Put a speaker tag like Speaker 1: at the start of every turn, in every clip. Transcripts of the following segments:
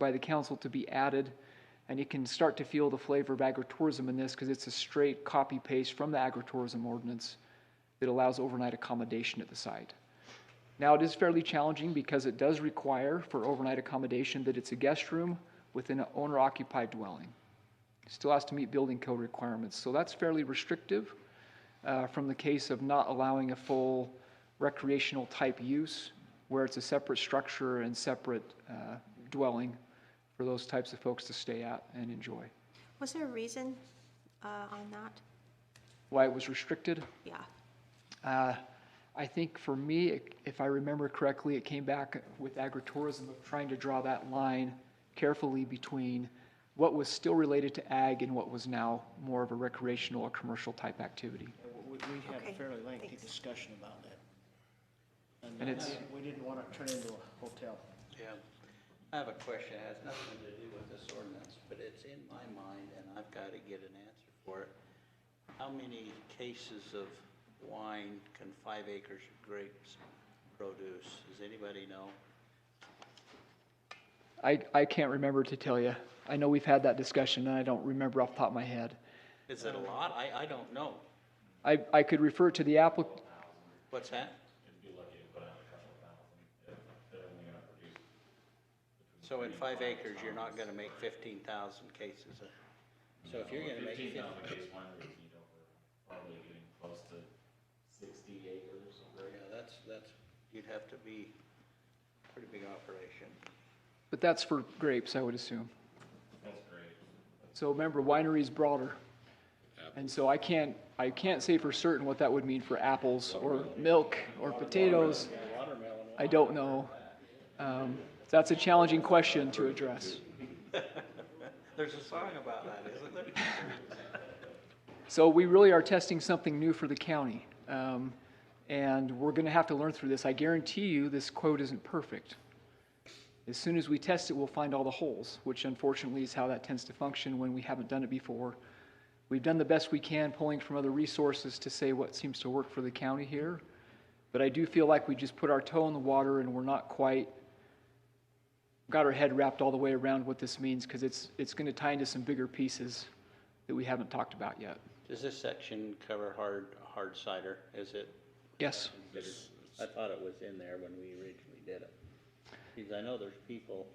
Speaker 1: by the council to be added. And you can start to feel the flavor of agritourism in this because it's a straight copy paste from the agritourism ordinance that allows overnight accommodation at the site. Now, it is fairly challenging because it does require for overnight accommodation that it's a guest room within an owner occupied dwelling. Still has to meet building code requirements, so that's fairly restrictive uh, from the case of not allowing a full recreational type use where it's a separate structure and separate uh, dwelling for those types of folks to stay at and enjoy.
Speaker 2: Was there a reason uh, on that?
Speaker 1: Why it was restricted?
Speaker 2: Yeah.
Speaker 1: Uh, I think for me, if I remember correctly, it came back with agritourism of trying to draw that line carefully between what was still related to ag and what was now more of a recreational or commercial type activity.
Speaker 3: We, we had a
Speaker 2: Okay,
Speaker 3: fairly lengthy
Speaker 2: thanks.
Speaker 3: discussion about that.
Speaker 1: And
Speaker 3: uh,
Speaker 1: it's-
Speaker 3: We didn't want to turn into a hotel.
Speaker 4: Yeah. I have a question, it has nothing to do with this ordinance, but it's in my mind, and I've got to get an answer for it. How many cases of wine can five acres of grapes produce? Does anybody know?
Speaker 1: I, I can't remember to tell you. I know we've had that discussion and I don't remember off the top of my head.
Speaker 4: Is it a lot? I, I don't know.
Speaker 1: I, I could refer to the applicant.
Speaker 4: What's that?
Speaker 5: uh,
Speaker 4: So in five acres, you're not gonna make fifteen thousand cases of, so if you're gonna make
Speaker 5: Fifteen
Speaker 4: fifteen.
Speaker 5: thousand case wineries need over, probably getting close to sixty acres of
Speaker 4: Yeah, that's, that's, you'd have to be a pretty big operation.
Speaker 1: but that's for grapes, I would assume.
Speaker 5: That's great.
Speaker 1: So remember, winery's broader. And so I can't, I can't say for certain what that would mean for apples or milk or potatoes. I don't know. Um, That's a challenging question to address.
Speaker 4: There's a song about that, isn't there?
Speaker 1: So we really are testing something new for the county. Um, and we're going to have to learn through this. I guarantee you, this quote isn't perfect. As soon as we test it, we'll find all the holes, which unfortunately is how that tends to function when we haven't done it before. We've done the best we can, pulling from other resources to say what seems to work for the county here. But I do feel like we just put our toe in the water and we're not quite got our head wrapped all the way around what this means because it's, it's going to tie into some bigger pieces that we haven't talked about yet.
Speaker 4: Does this section cover hard, hard cider? Is it?
Speaker 1: Yes.
Speaker 4: I thought it was in there when we originally did it. Because I know there's people,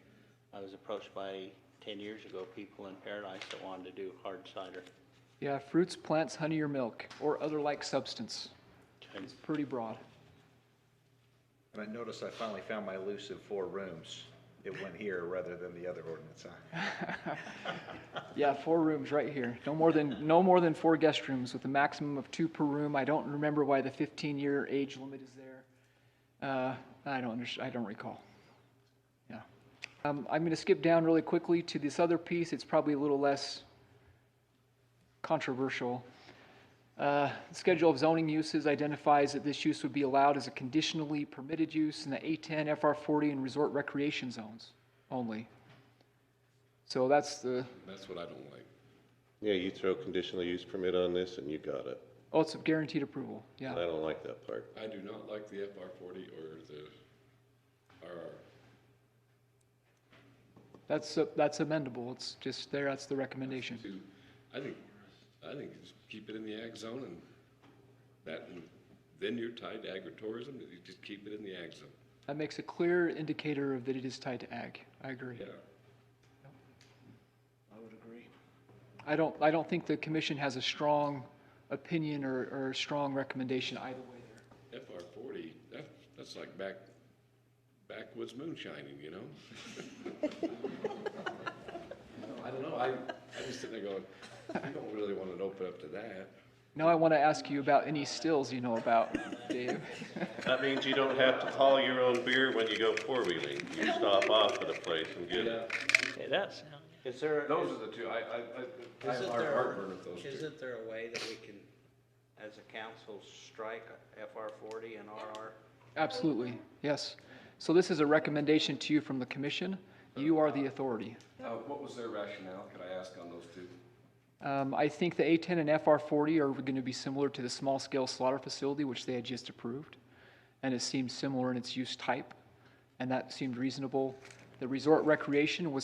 Speaker 4: I was approached by ten years ago, people in Paradise that wanted to do hard cider.
Speaker 1: Yeah, fruits, plants, honey, or milk, or other like substance. It's pretty broad.
Speaker 6: And I noticed I finally found my elusive four rooms. It went here rather than the other ordinance, huh?
Speaker 1: Yeah, four rooms right here. No more than, no more than four guest rooms with a maximum of two per room. I don't remember why the 15-year age limit is there. Uh, I don't under, I don't recall. Yeah. Um, I'm going to skip down really quickly to this other piece. It's probably a little less controversial. Uh, Schedule of zoning uses identifies that this use would be allowed as a conditionally permitted use in the A10, FR40, and resort recreation zones only. So that's the,
Speaker 7: That's what I don't like.
Speaker 8: Yeah, you throw conditional use permit on this and you got it.
Speaker 1: Oh, it's guaranteed approval,
Speaker 8: I
Speaker 1: yeah.
Speaker 8: don't like that part.
Speaker 7: I do not like the FR forty or the RR.
Speaker 1: That's, uh, that's amendable, it's just there, that's the recommendation.
Speaker 7: Two, I think, I think just keep it in the ag zone and that, and then you're tied to agritourism, you just keep it in the ag zone.
Speaker 1: That makes a clear indicator of that it is tied to ag, I agree.
Speaker 7: Yeah,
Speaker 3: I would agree.
Speaker 1: I don't, I don't think the commission has a strong opinion or, or a strong recommendation either way there.
Speaker 7: FR forty, that, that's like back, backwoods moonshining, you know? I don't know, I, I just sitting there going, I don't really want to open up to that.
Speaker 1: Now I want to ask you about any stills you know about, Dave.
Speaker 8: That means you don't have to haul your own beer when you go four-wheeling. You stop off at a place and get it.
Speaker 4: Okay, that's, is there,
Speaker 7: Those are the two, I, I, I, I
Speaker 4: is
Speaker 7: have
Speaker 4: it
Speaker 7: hard
Speaker 4: there,
Speaker 7: heartburn with those two.
Speaker 4: isn't there a way that we can, as a council, strike FR forty and RR?
Speaker 1: Absolutely, yes. So this is a recommendation to you from the commission, you are the authority.
Speaker 7: Uh, what was their rationale, could I ask on those two?
Speaker 1: Um, I think the A10 and FR40 are going to be similar to the small-scale slaughter facility, which they had just approved, and it seemed similar in its use type, and that seemed reasonable. The resort recreation was